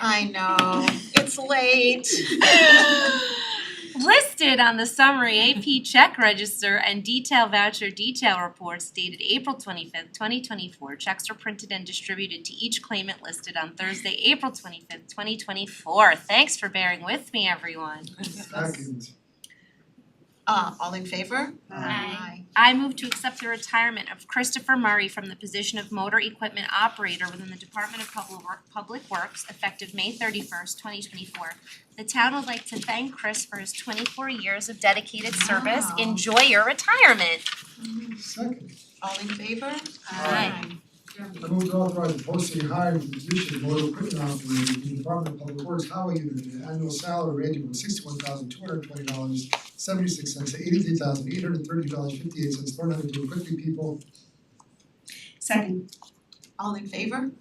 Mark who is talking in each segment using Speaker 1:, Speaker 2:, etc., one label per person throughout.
Speaker 1: I know, it's late.
Speaker 2: Listed on the summary AP check register and detail voucher detail reports dated April twenty-fifth, twenty twenty-four. Checks are printed and distributed to each claimant listed on Thursday, April twenty-fifth, twenty twenty-four. Thanks for bearing with me, everyone.
Speaker 3: Second.
Speaker 1: Uh, all in favor?
Speaker 4: Aye.
Speaker 2: I move to accept the retirement of Christopher Murray from the position of motor equipment operator within the Department of Public Work, Public Works effective May thirty first, twenty twenty four. The town would like to thank Chris for his twenty four years of dedicated service.
Speaker 1: Wow.
Speaker 2: Enjoy your retirement.
Speaker 3: Second.
Speaker 1: All in favor?
Speaker 2: Aye.
Speaker 3: I move to authorize the posting and hiring for the position of motor equipment operator in the Department of Public Works Highway Unit at an annual salary ranging from sixty-one thousand two hundred twenty dollars seventy-six cents to eighty-three thousand eight hundred thirty dollars fifty-eight cents per hundred to equip the people.
Speaker 4: Second.
Speaker 1: All in favor?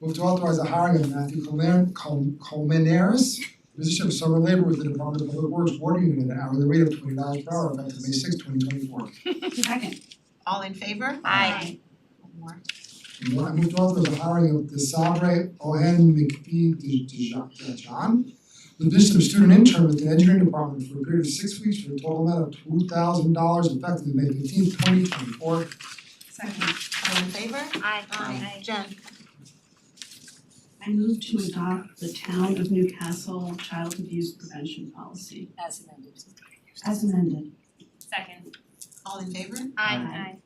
Speaker 3: Move to authorize the hiring of Matthew Colmer- Col- Colmenares, position of summer labor with the Department of Public Works Water Unit at an hourly rate of twenty dollars per hour effective May sixth, twenty twenty-four.
Speaker 4: Second.
Speaker 1: All in favor?
Speaker 2: Aye.
Speaker 1: One more.
Speaker 3: And one, I moved to authorize the hiring of the Sabre Ohen McPhee De- De- De- John, the position of student intern with the engineering department for a period of six weeks for a total amount of two thousand dollars effective May fifteenth, twenty twenty-four.
Speaker 4: Second.
Speaker 1: All in favor?
Speaker 2: Aye.
Speaker 1: Aye. Jen?
Speaker 5: I move to adopt the town of Newcastle child abuse prevention policy
Speaker 2: As amended.
Speaker 5: as amended.
Speaker 2: Second.
Speaker 1: All in favor?
Speaker 5: Aye.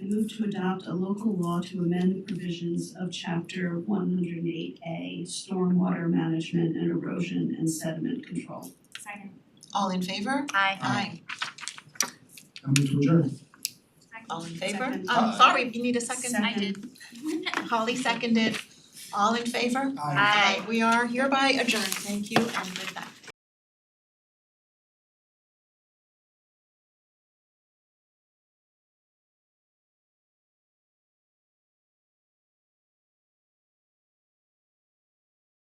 Speaker 5: I move to adopt a local law to amend the provisions of chapter one hundred and eight A, stormwater management and erosion and sediment control.
Speaker 2: Second.
Speaker 1: All in favor?
Speaker 2: Aye.
Speaker 1: Aye.
Speaker 3: I move to adjourn.
Speaker 1: All in favor?
Speaker 5: Second.
Speaker 1: Um, sorry, you need a second?
Speaker 5: Second.
Speaker 2: I did.
Speaker 1: Holly seconded. All in favor?
Speaker 3: Aye.
Speaker 2: Aye.
Speaker 1: We are hereby adjourned. Thank you and good night.